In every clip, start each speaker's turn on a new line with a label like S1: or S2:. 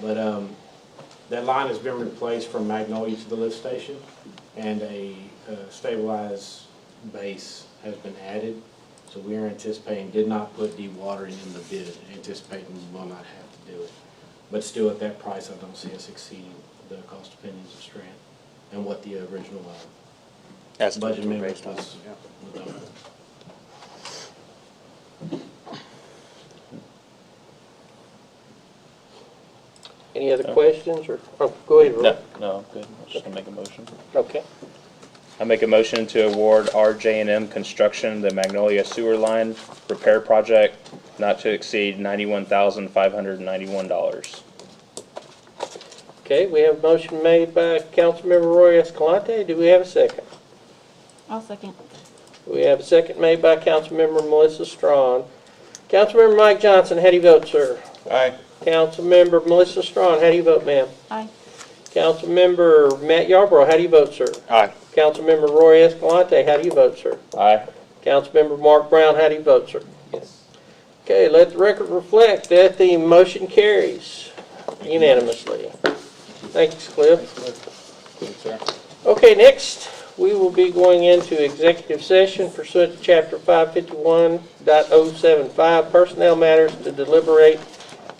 S1: But um, that line has been replaced from Magnolia to the lift station, and a uh, stabilized base has been added. So we are anticipating, did not put dewatering in the bid, anticipating we will not have to do it. But still, at that price, I don't see us exceeding the cost opinions of Strand and what the original uh,
S2: That's what
S1: budget
S2: we're
S1: amendment
S2: based on.
S1: was. was on.
S3: Any other questions or, oh, go ahead,
S2: No,
S3: Roy.
S2: no, I'm good. I'm just gonna make a motion.
S3: Okay.
S2: I make a motion to award RJ and M Construction the Magnolia Sewer Line Repair Project not to exceed ninety-one thousand five hundred and ninety-one dollars.
S3: Okay, we have a motion made by Councilmember Roy Escalante. Do we have a second?
S4: I'll second.
S3: We have a second made by Councilmember Melissa Strawn. Councilmember Mike Johnson, how do you vote, sir?
S5: Aye.
S3: Councilmember Melissa Strawn, how do you vote, ma'am?
S4: Aye.
S3: Councilmember Matt Yarborough, how do you vote, sir?
S5: Aye.
S3: Councilmember Roy Escalante, how do you vote, sir?
S2: Aye.
S3: Councilmember Mark Brown, how do you vote, sir? Yes. Okay, let the record reflect that the motion carries unanimously. Thanks, Cliff. Okay, next, we will be going into executive session pursuant to Chapter 551.075 Personnel Matters to deliberate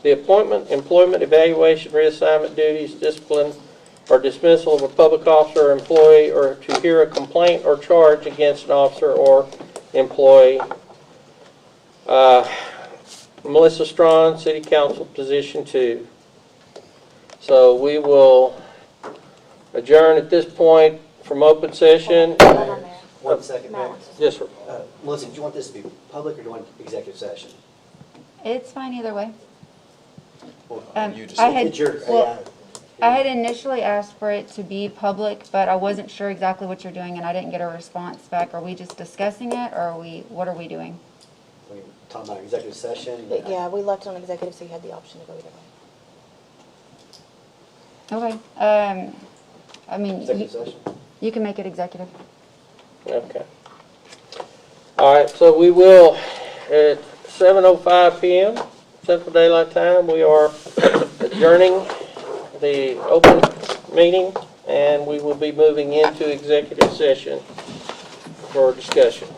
S3: the appointment, employment, evaluation, reassignment duties, discipline, or dismissal of a public officer or employee, or to hear a complaint or charge against an officer or employee. Uh, Melissa Strawn, City Council, Position Two. So we will adjourn at this point from open session.
S6: Madam Mayor,
S7: One second,
S6: Matt
S7: Mayor.
S6: wants to
S3: Yes, sir.
S7: Uh, Melissa, do you want this to be public or do you want executive session?
S4: It's fine either way.
S7: Well,
S4: Um,
S5: You just-
S4: I had,
S7: It's your,
S4: well,
S7: yeah.
S4: I had initially asked for it to be public, but I wasn't sure exactly what you're doing, and I didn't get a response back. Are we just discussing it, or are we, what are we doing?
S7: we were talking about executive session.
S6: But yeah, we left on executive, so you had the option to go either way.
S4: Okay, um, I mean,
S7: Executive
S4: you,
S7: session.
S4: you can make it executive.
S3: Okay. All right, so we will, at 7:05 PM, Central Daylight Time, we are adjourning the open meeting, and we will be moving into executive session for discussion.